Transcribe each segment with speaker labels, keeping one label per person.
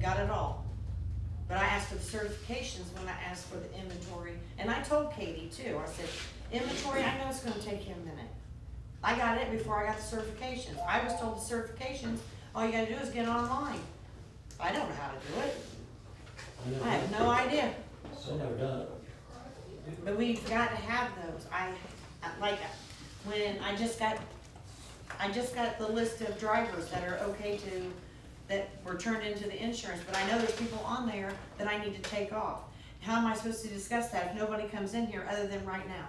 Speaker 1: got it all. But I asked for the certifications when I asked for the inventory, and I told Katie too, I said, inventory, I know it's gonna take you a minute. I got it before I got the certifications, I was told the certifications, all you gotta do is get online. I don't know how to do it,
Speaker 2: I never
Speaker 1: I have
Speaker 2: done
Speaker 1: no
Speaker 2: it.
Speaker 1: idea,
Speaker 2: I never done it.
Speaker 1: but we've got to have those, I, I- like, when I just got, I just got the list of drivers that are okay to, that were turned into the insurance, but I know there's people on there that I need to take off. How am I supposed to discuss that if nobody comes in here other than right now?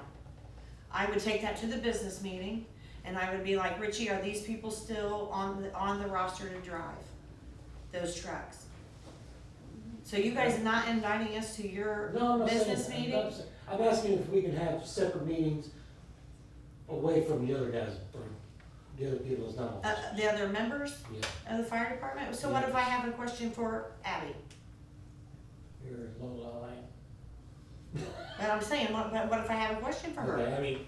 Speaker 1: I would take that to the business meeting, and I would be like, Richie, are these people still on, the on the roster to drive those trucks? So you guys not inviting us to your
Speaker 2: No, I'm not saying.
Speaker 1: business
Speaker 2: that. I'm
Speaker 1: meeting?
Speaker 2: not saying- I'm asking if we can have separate meetings away from the other guys, or the other people's not
Speaker 1: Uh,
Speaker 2: officers.
Speaker 1: the other members
Speaker 2: Yeah,
Speaker 1: of the fire department, so what if I have a question for Abby?
Speaker 2: you're Lola, I am.
Speaker 1: But I'm saying, what, what what if I have a question for
Speaker 2: Okay,
Speaker 1: her?
Speaker 2: I mean,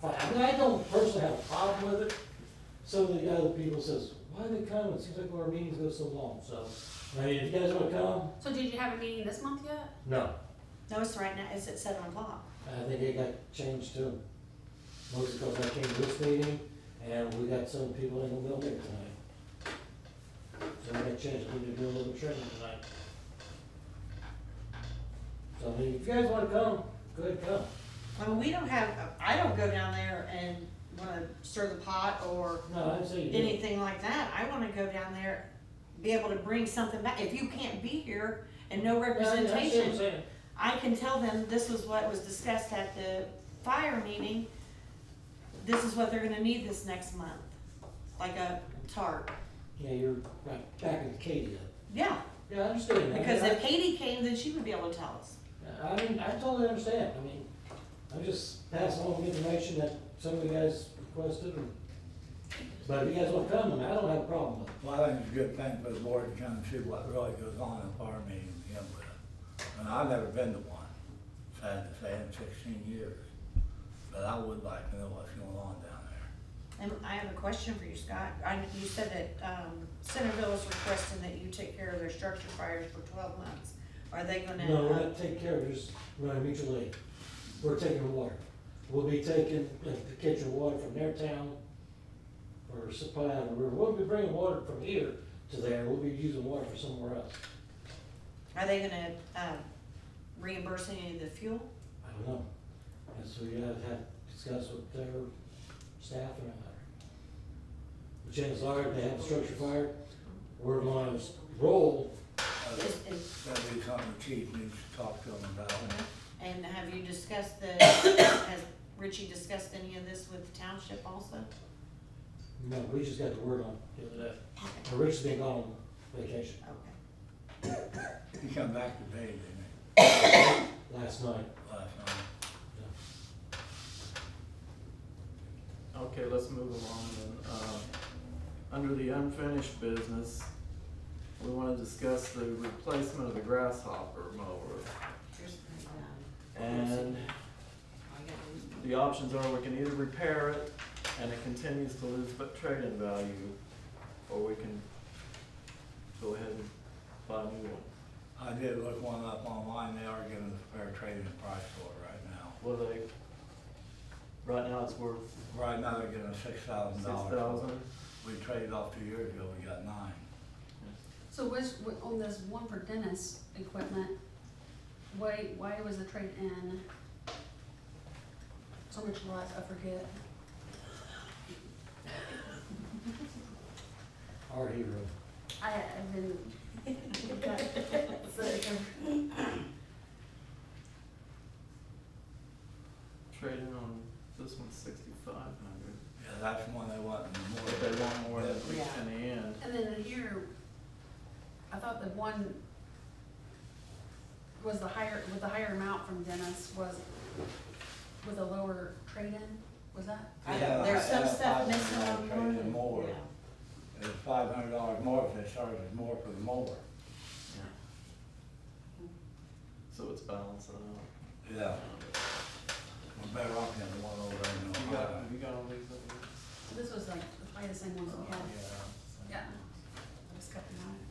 Speaker 2: fine. I mean, I don't personally have a problem with it. Some of the other people says, why are they coming? It seems like our meetings go so long, so, I mean, if you guys wanna come,
Speaker 3: So did you have a meeting this month yet?
Speaker 2: no.
Speaker 1: No, it's right now, it's at seven o'clock.
Speaker 2: Uh, I think it got changed too. Mostly because I came to this meeting and we got some people in the building tonight. So we got changed, we need to do a little training tonight. So I mean, if you guys wanna come, go ahead, come.
Speaker 1: I mean, we don't have, I don't go down there and wanna stir the pot or
Speaker 2: No, I didn't say you did.
Speaker 1: anything like that. I wanna go down there, be able to bring something back. If you can't be here and no representation, I can tell them this was what was discussed at the fire meeting. This is what they're gonna need this next month, like a tarp.
Speaker 2: Yeah, you're right, back in Katie.
Speaker 1: Yeah,
Speaker 2: Yeah, I understand. that.
Speaker 1: because
Speaker 2: I-
Speaker 1: if Katie came, then she would be able to tell us.
Speaker 2: I mean, I totally understand, I mean, I'm just passing on the information that some of you guys requested, and- but if you guys wanna come, then I don't have a problem with it.
Speaker 4: Well, I think it's a good thing for the board to come and see what really goes on in a fire meeting to begin with. And I've never been to one, sad to say, in sixteen years. But I would like to know what's going on down there.
Speaker 1: And I have a question for you, Scott. I, you said that, um, Centerville is requesting that you take care of their structure fires for twelve months. Are they gonna?
Speaker 2: No, we're
Speaker 1: uh,
Speaker 2: not taking care of just running mutual aid. We're taking water. We'll be taking, like, the kitchen water from their town or supply out of the river. We'll be bringing water from here to there. We'll be using water for somewhere else.
Speaker 1: Are they gonna, um, reimburse any of the fuel?
Speaker 2: I don't know. And so you have to have, discuss with their staff and all that. The chances are, if they have a structure fire, we're gonna roll.
Speaker 1: Is, is,
Speaker 4: That'd be something the chief needs to talk to them about.
Speaker 1: and have you discussed the, has Richie discussed any of this with the township also?
Speaker 2: No, we just got the word on it the other day.
Speaker 1: Okay,
Speaker 2: And Rich's been gone on vacation
Speaker 1: okay.
Speaker 4: He come back today, didn't he,
Speaker 2: last night.
Speaker 4: last night?
Speaker 5: Okay, let's move along then. Um, Under the unfinished business, we wanna discuss the replacement of the grasshopper mower.
Speaker 1: Here's my, um,
Speaker 5: And
Speaker 1: I got-
Speaker 5: the options are we can either repair it and it continues to lose but trade-in value, or we can go ahead and buy a new one.
Speaker 4: I did look one up online, they are giving us fair trading price for it right now.
Speaker 5: Well, they, right now it's worth
Speaker 4: Right now, they're giving us six thousand
Speaker 5: six
Speaker 4: dollars.
Speaker 5: thousand.
Speaker 4: We traded off two years ago, we got nine.
Speaker 3: So was, wa- on this one for Dennis equipment, why, why was the trade-in so much less, I forget?
Speaker 2: Our hero.
Speaker 3: I, I've been.
Speaker 5: Trade-in on this one's sixty-five hundred,
Speaker 4: Yeah, that's the one they want more.
Speaker 5: but they want more than we
Speaker 1: Yeah.
Speaker 5: can in.
Speaker 3: And then here, I thought the one was the higher, with the higher amount from Dennis was with a lower trade-in, was that?
Speaker 1: I
Speaker 4: Yeah,
Speaker 1: don't- There's
Speaker 4: I
Speaker 1: some
Speaker 4: have
Speaker 1: stuff
Speaker 4: five
Speaker 1: missing on
Speaker 4: hundred dollars
Speaker 1: one.
Speaker 4: more.
Speaker 1: Yeah.
Speaker 4: It's five hundred dollars more if they charge us more for the mower.
Speaker 5: Yeah. So it's balancing out.
Speaker 4: Yeah. We're better off than the one over there in
Speaker 5: You got,
Speaker 4: Ohio.
Speaker 5: you got all these up here? Oh,
Speaker 3: So this was like probably the same ones we had,
Speaker 4: Yeah.
Speaker 3: yeah. I just got them out.